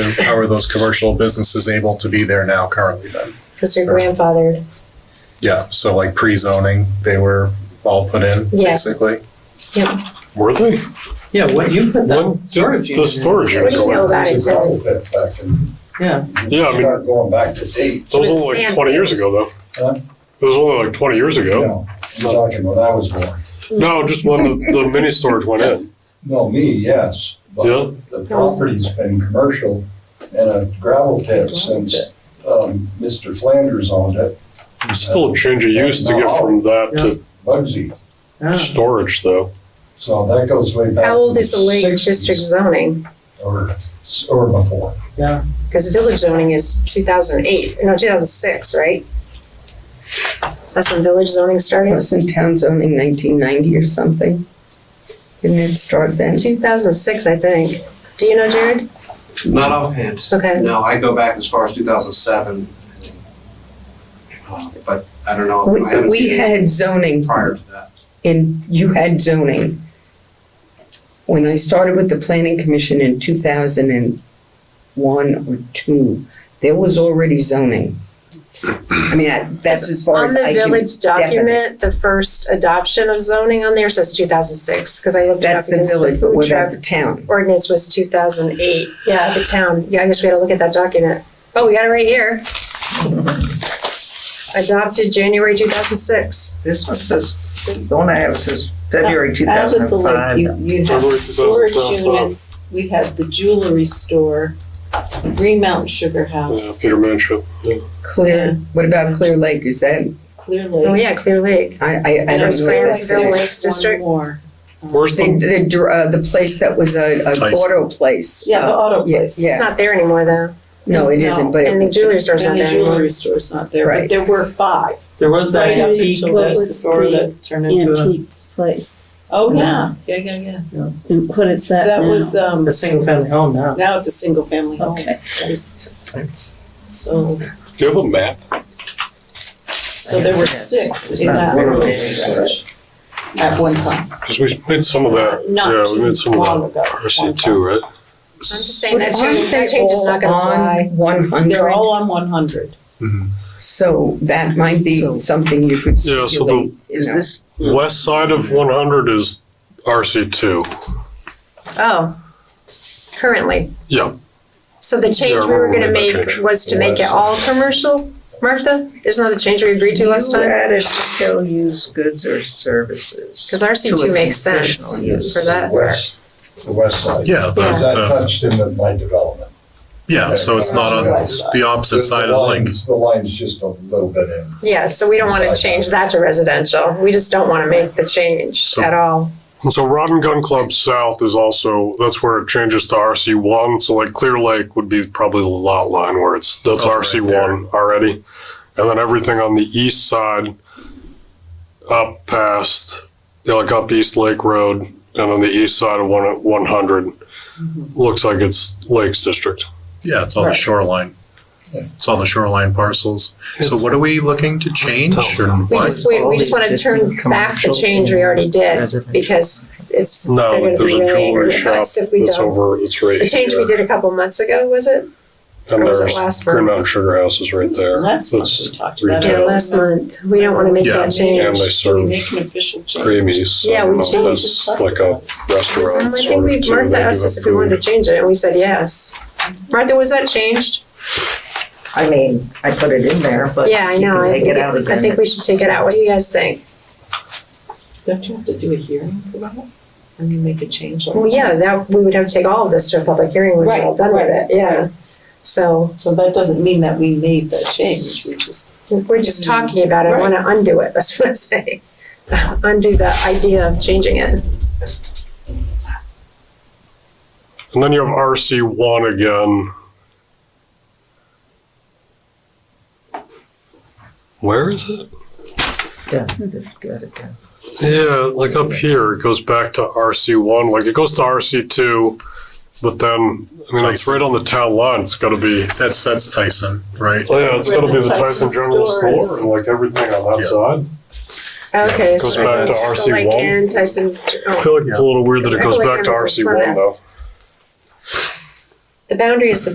How are those commercial businesses able to be there now currently then? Because they're grandfathered. Yeah, so like pre-zoning, they were all put in, Yeah. basically. Yep. Were they? Yeah, what you put What that storage The unit in. What storage do units. you know about it, Joe? Yeah, Yeah, I We mean, are going back to date. those With were only like sand twenty years pits. ago though. Huh? It was only like twenty years ago. No, you're talking when I was born. No, just when the, the mini storage went in. No, me, yes. Yeah. But the property's been commercial and a gravel pit since um, Mr. Flanders owned it, It's Still a change of use to get from that Bugsy. to yeah. storage though. So that goes way back. How old to is the Lake 60s District zoning? Or, or before. Because village zoning is two thousand eight, no, two thousand six, right? That's when village zoning It started, was in town zoning nineteen ninety or something. Didn't it start then? two thousand six, I think. Do you know, Jared? Not offhand. Okay. No, I go back as far as two thousand seven. Uh, But I don't know, I We, haven't we seen it had zoning prior to that. and you had zoning. When I started with the planning commission in two thousand and one or two, there was already zoning. I mean, I- that's as far On as the I can, village document, the first adoption of zoning on there says two thousand six, because I looked it up. that's the because village, but food what truck about the town? Ordinance was two thousand eight, yeah, the town, yeah, I guess we gotta look at that document. Oh, we got it right here. Adopted January two thousand six. This one says, the one I have says February two Out thousand at the and lake, five. you, you have February storage 2012. units, we had the jewelry store, Green Mountain Sugar Yeah, House, Peter Manship. Clear, what about Clear Lake, is that, Clear Oh, Lake. yeah, Clear Lake. I, I, I And don't There's know. there what Clarence that Village. is. was one District. more. Um, Where's The, the, the, dr- uh, the place that was a, a Tyson. auto place. Yeah, the uh, auto yeah, place. yeah. It's not there anymore, though. No, it No. isn't, but. And the jewelry store's not And the there anymore. jewelry store's not there, Right. but there were five. There was that Right up antique until that that's store that turned into antique place. Oh, yeah, yeah, yeah, yeah. And what is that That now? was, a, um, a single family home now. now it's a single family home. Okay. That was- So, do you have a map? so there were six in that Literally. district at one time. Cause we made some of that. Not Yeah, we made too some long of ago. that. RC two, right? I'm just saying But that aren't change, they that change is not gonna all on fly. One They're hundred, all on one hundred. so that might be something you could Yeah, so the- stipulate, you Is know. this, West side of one hundred is RC two. Oh, currently. Yeah. So the change we we're were gonna worried make about change. was to make it all commercial, Martha? Isn't that the change we agreed to last you time? added shall use goods or services. 'Cause RC2 to a makes sense. conditional Yes, use. For that. the west- The west side. Yeah, the- Yeah. Because I the- touched into my development. yeah, so it's not on, it's the opposite side of the link. lines- The line's just a little bit in. Yeah, so we don't wanna change that to residential. We just don't wanna make the change So- at all. And so Rod and Gun Club South is also, that's where it changes to RC one, so like Clear Lake would be probably the lot line where it's, that's Oh, right RC one already. And then everything on the east side, up past, you know, like up East Lake Road, and then the east side of one, one hundred, looks like it's Lakes District. Yeah, it's on the shoreline. Yeah. It's on the shoreline parcels. So It's- what are we looking to change or We what? just, we, we just wanna turn back the change we already did because it's, they're No, gonna like be there's a really angry jewelry with shop us if we that's don't. over, it's right The change we here. did a couple months ago, was it? And or was it there's last month? Green Mountain Sugar House is right there. Last month That's we talked about it. retail. Yeah, month. We don't wanna make Yeah. that And change. they Should serve we make an official change? Creamies. so Yeah, I don't we know if changed that's the like a restaurant. Um, I sort think of we, too. They Martha do asked us have if we wanted to food. change it and we said yes. Martha, was that changed? I mean, I put it in there, but you Yeah, I know. can I take think, it out I again. think we should take it out. What do you guys think? Don't you have to do a hearing for that? And you make a change Well, on it? yeah, that, we would have to take all of this to a public hearing when we're all Right, done with right, it, yeah. So So that doesn't mean that we made that change, we just. we're just talking about it. I wanna undo it. That's what I'm saying. Undo the idea of changing it. And then you have RC one again. Where is it? Yeah, it's good again. Yeah, like up here, it goes back to RC one, like it goes to RC two, but then, I mean, it's right on the town line, it's gotta be, That's, that's Tyson, right? oh yeah, it's gotta be the Tyson Tyson General Store Stores. and like everything on that Yeah. side. Okay. Goes so back to it's RC1. like Aaron Tyson, I feel oh, like it's a little weird that it Yeah. goes back to RC one though. the boundary is the